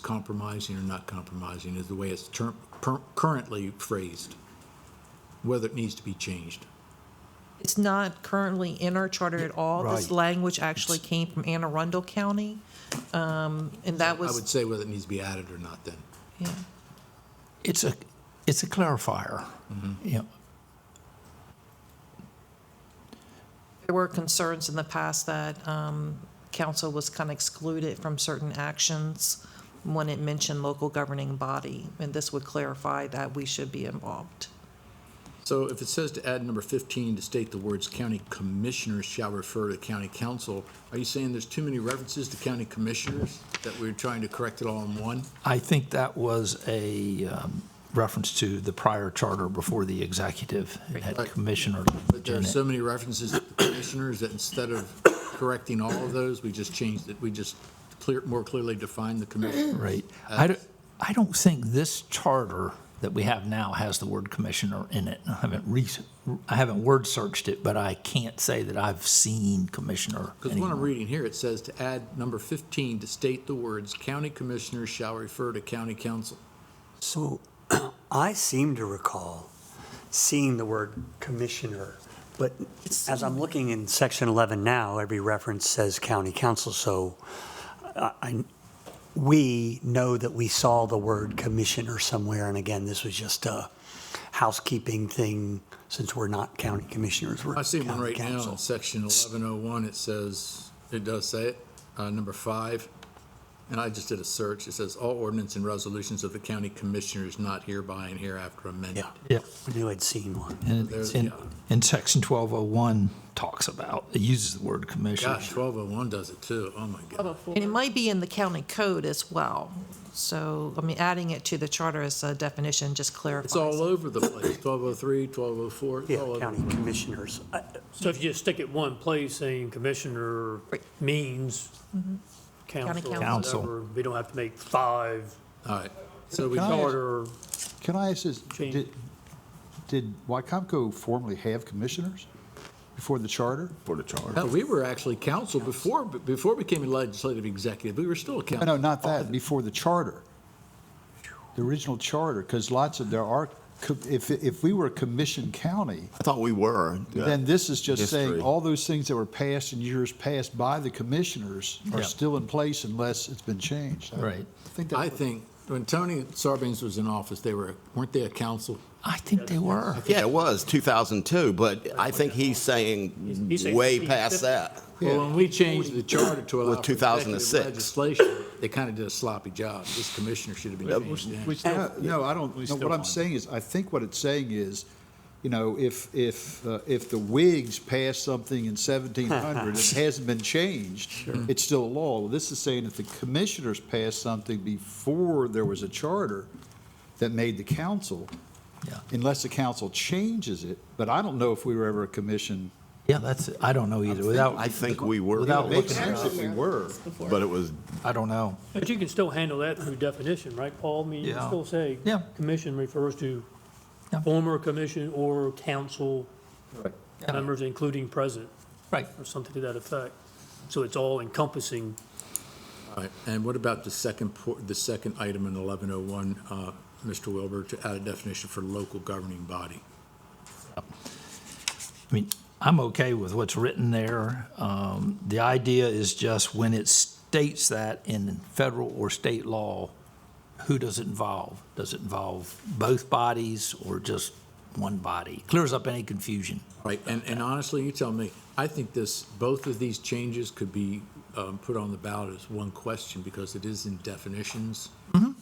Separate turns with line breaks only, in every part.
compromising or not compromising is the way it's term, per, currently phrased, whether it needs to be changed.
It's not currently in our charter at all. This
Right.
language actually came from Anne Arundel County, um, and that
I would
was,
say whether it needs to be added or not then.
yeah.
It's a, it's a clarifier.
Mm-hmm.
Yeah.
There were concerns in the past that um, council was kind of excluded from certain actions when it mentioned local governing body, and this would clarify that we should be involved.
So if it says to add number 15 to state the words county commissioners shall refer to county council, are you saying there's too many references to county commissioners that we're trying to correct it all in one?
I think that was a um, reference to the prior charter before the executive. It had
Right.
commissioners.
But there are
in it.
so many references to commissioners that instead of correcting all of those, we just changed it, we just clear, more clearly define the commissioner.
Right.
Uh,
I don't, I don't think this charter that we have now has the word commissioner in it. I haven't re, I haven't word searched it, but I can't say that I've seen commissioner.
Because what I'm
anywhere.
reading here, it says to add number 15 to state the words county commissioners shall refer to county council.
So I seem to recall seeing the word commissioner, but as I'm looking in section 11 now, every reference says county council, so I- I, we know that we saw the word commissioner somewhere, and again, this was just a housekeeping thing, since we're not county commissioners, we're
I see one
county
right now
council.
in section 1101, it says, it does say it, uh, number five. And I just did a search, it says all ordinance and resolutions of the county commissioners not hereby and hereafter amended.
Yeah.
Yeah, I knew I'd seen one.
And,
There's-
and,
yeah.
and section 1201 talks about, it uses the word commissioner.
Gosh, 1201 does it too, oh my God.
And it might be in the county code as well. So, I mean, adding it to the charter as a definition just clarifies.
It's all over the place, 1203, 1204, it's
Yeah,
all over.
county commissioners. Uh, I-
So if you just stick it one place, saying commissioner
Right.
means council, or
council.
whatever, we don't have to make five
All right, so we
Oh,
Can I ask-
charter.
Can I ask this,
Change.
did, did Wycomco formerly have commissioners before the charter?
for the charter.
No, we were actually council before, before we became a legislative executive, we were still a
No,
council.
no, not that, before the charter, the original charter, because lots of, there are, co- if, if we were a commission county,
I thought we were.
then this is just saying
History.
all those things that were passed in years past by the commissioners are
Yeah.
still in place unless it's been changed. I
Right.
think that's
I
what-
think, when Tony Sarbanes was in office, they were, weren't they a council?
I think they were.
Yeah, it was 2002, but I think he's
He's-
saying
he's saying
way
50.
past that.
Well, when we changed the charter to allow.
With
for
2006.
executive Legislation, they kind of did a sloppy job. This commissioner should have been changed in.
No, no, I don't, no,
still
what I'm
want it.
saying is, I think what it's saying is, you know, if, if, uh, if the Whigs passed something in 1700, it hasn't been changed, it's still a law. Well, This is saying if the commissioners passed something before there was a charter that made the council,
Yeah.
unless the council changes it, but I don't know if we were ever a commission.
Yeah, that's, I don't know either. Without,
I think we were,
Without
It makes
looking
sense if we were.
but it was
I don't know.
But you can still handle that through definition, right, Paul? I mean, you can
Yeah.
still say,
Yeah.
commission refers to
Yeah.
former commission or council
Yeah.
members, including president,
Right.
or something to that effect. So it's all encompassing.
All right, and what about the second, por- the second item in 1101, uh, Mr. Wilbur, to add a definition for local governing body?
I mean, I'm okay with what's written there. Um, the idea is just when it states that in federal or state law, who does it involve? Does it involve both bodies or just one body? Clears up any confusion.
Right, and, and honestly, you tell me, I think this, both of these changes could be um, put on the ballot as one question because it is in definitions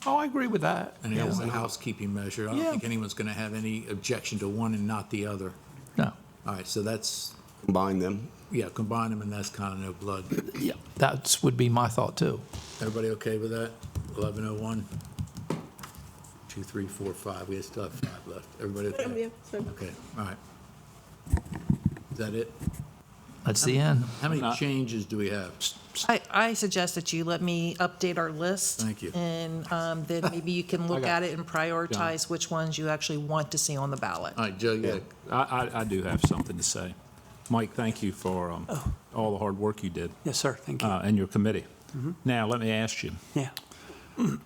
Oh, I agree with that.
and it is a housekeeping measure. I
Yeah.
don't think anyone's going to have any objection to one and not the other.
No,
All right, so that's,
combined them.
yeah, combine them and that's kind of no blood.
yeah, that's, would be my thought too.
Everybody okay with that? 1101? Two, three, four, five, we still have five left. Everybody okay? Okay, all right. Is that it?
That's the end.
How many changes do we have?
I, I suggest that you let me update our list.
Thank you.
And um, then maybe you can look at it and prioritize which ones you actually want to see on the ballot.
All right, Joe, yeah,
I, I, I do have something to say. Mike, thank you for um, all the hard work you did
Yes, sir, thank you.
uh, and your committee. Now, let me ask you,
Yeah.